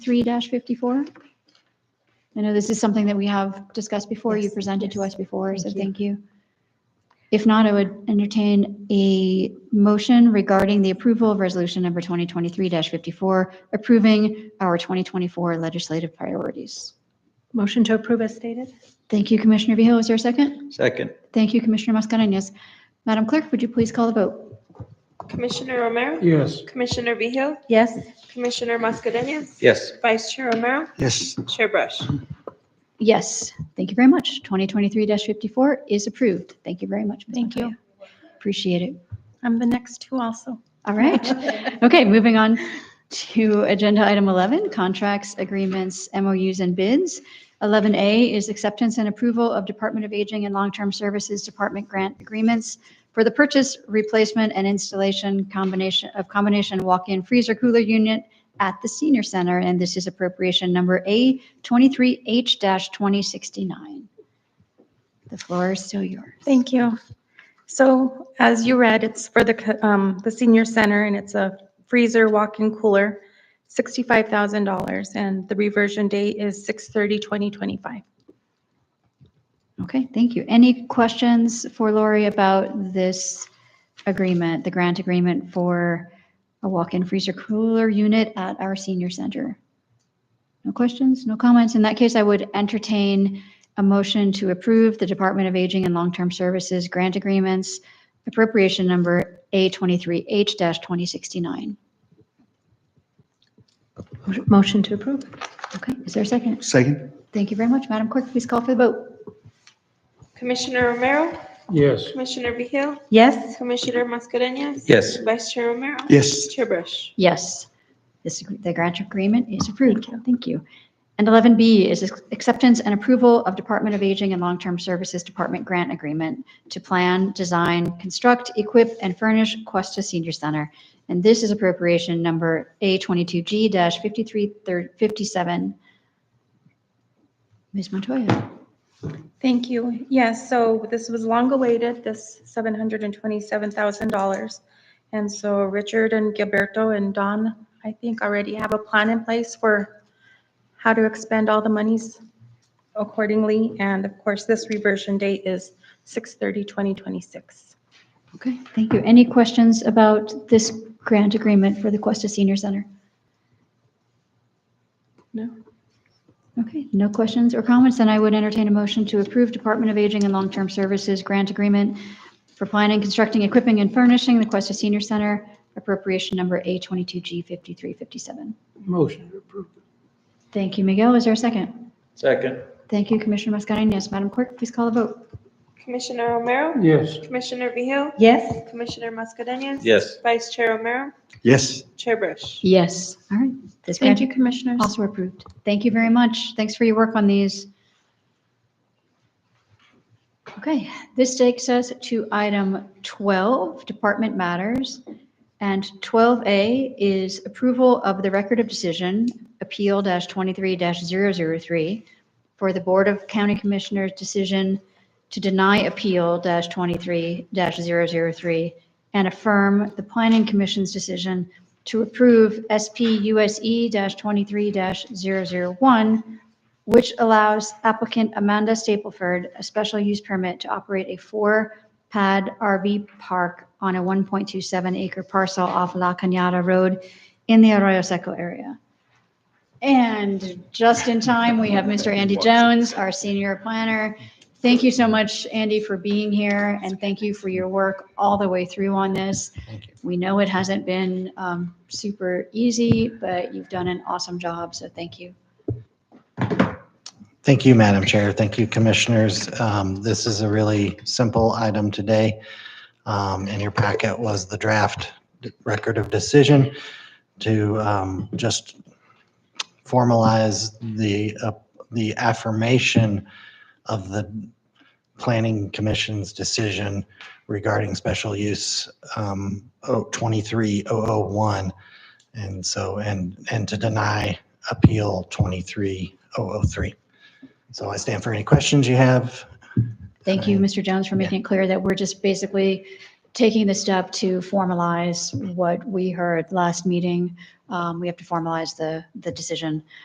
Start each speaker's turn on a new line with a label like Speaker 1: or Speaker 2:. Speaker 1: three fifty-four? I know this is something that we have discussed before, you
Speaker 2: Yes,
Speaker 1: presented to
Speaker 2: yes.
Speaker 1: us before, so
Speaker 2: Thank you.
Speaker 1: thank you. If not, I would entertain a motion regarding the approval of resolution number twenty twenty-three fifty-four, approving our twenty twenty-four legislative priorities.
Speaker 2: Motion to approve as stated?
Speaker 1: Thank you, Commissioner Vehil. Is there a second?
Speaker 3: Second,
Speaker 1: Thank you, Commissioner Mascherinas. Madam Clerk, would you please call the vote?
Speaker 4: Commissioner Romero?
Speaker 5: Yes.
Speaker 4: Commissioner Vehil?
Speaker 2: Yes.
Speaker 4: Commissioner Mascherinas?
Speaker 3: yes.
Speaker 4: Vice Chair Romero?
Speaker 5: Yes.
Speaker 4: Chair Brush?
Speaker 1: Yes, thank you very much. Twenty twenty-three fifty-four is approved. Thank you very much. Ms.
Speaker 2: Thank you.
Speaker 1: Montoya. Appreciate it.
Speaker 2: I'm the next two also.
Speaker 1: All right. Okay, moving on to agenda item 11, contracts, agreements, MOUs, and bids. 11A is acceptance and approval of Department of Aging and Long-Term Services Department grant agreements for the purchase, replacement, and installation combination of combination walk-in freezer cooler unit at the senior center, and this is appropriation number A23H-2069. The floor is still yours.
Speaker 2: Thank you. So as you read, it's for the, co- um, the senior center and it's a freezer walk-in cooler, $65,000. And the reversion date is 6/30/2025.
Speaker 1: Okay, thank you. Any questions for Lori about this agreement, the grant agreement for a walk-in freezer cooler unit at our senior center? No questions, no comments? In that case, I would entertain a motion to approve the Department of Aging and Long-Term Services grant agreements, appropriation number A23H-2069.
Speaker 2: Motion to approve?
Speaker 1: Okay, is there a second?
Speaker 5: Second?
Speaker 1: Thank you very much. Madam Clerk, please call for the vote.
Speaker 4: Commissioner Romero?
Speaker 5: Yes.
Speaker 4: Commissioner Vehil?
Speaker 2: Yes.
Speaker 4: Commissioner Mascherinas?
Speaker 3: Yes.
Speaker 4: Vice Chair Romero?
Speaker 5: Yes.
Speaker 4: Chair Brush?
Speaker 1: Yes, this, ag- the grant agreement is approved. Thank you. And 11B is ac- acceptance and approval of Department of Aging and Long-Term Services Department grant agreement to plan, design, construct, equip, and furnish Cuesta Senior Center. And this is appropriation number A22G-5357. Ms. Montoya?
Speaker 2: Thank you. Yes, so this was long awaited, this $727,000. And so Richard and Gilberto and Don, I think, already have a plan in place for how to expend all the monies accordingly. And of course, this reversion date is 6/30/2026.
Speaker 1: Okay, thank you. Any questions about this grant agreement for the Cuesta Senior Center?
Speaker 2: No.
Speaker 1: Okay, no questions or comments, then I would entertain a motion to approve Department of Aging and Long-Term Services Grant Agreement for planning, constructing, equipping, and furnishing the Cuesta Senior Center, appropriation number A22G5357.
Speaker 5: Motion to approve.
Speaker 1: Thank you, Miguel. Is there a second?
Speaker 3: Second,
Speaker 1: Thank you, Commissioner Mascherinius. Madam Clerk, please call the vote.
Speaker 4: Commissioner Romero?
Speaker 5: Yes.
Speaker 4: Commissioner Vehil?
Speaker 2: Yes.
Speaker 4: Commissioner Mascherinas?
Speaker 3: yes.
Speaker 4: Vice Chair Romero?
Speaker 5: Yes.
Speaker 4: Chair Brush?
Speaker 1: Yes. All right. This grant
Speaker 2: Thank you, Commissioners.
Speaker 1: also approved. Thank you very much. Thanks for your work on these. Okay, this takes us to item 12, Department Matters. And 12A is approval of the record of decision, Appeal dash 23-003, for the Board of County Commissioners' decision to deny Appeal dash 23-003 and affirm the Planning Commission's decision to approve E SPUSE-23-001, which allows applicant Amanda Stapleford a special use permit to operate a four-pad RV park on a 1.27-acre parcel off La Cañada Road in the Arroyo Seco area. And just in time, we have Mr. Andy Jones, our senior planner. Thank you so much, Andy, for being here, and thank you for your work all the way through on this. We know it hasn't been um, super easy, but you've done an awesome job, so thank you.
Speaker 6: Thank you, Madam Chair. Thank you, Commissioners. Um, This is a really simple item today. Um, In your packet was the draft record of decision to um, just formalize the, uh, the affirmation of the Planning Commission's decision regarding special use um, oh, 23001. And so, and, and to deny appeal 23003. So I stand for any questions you have.
Speaker 1: Thank you,
Speaker 6: Fine.
Speaker 1: Mr. Jones, for making it clear that we're just basically taking the step to formalize what we heard last meeting um, Um, We have to formalize the, the decision.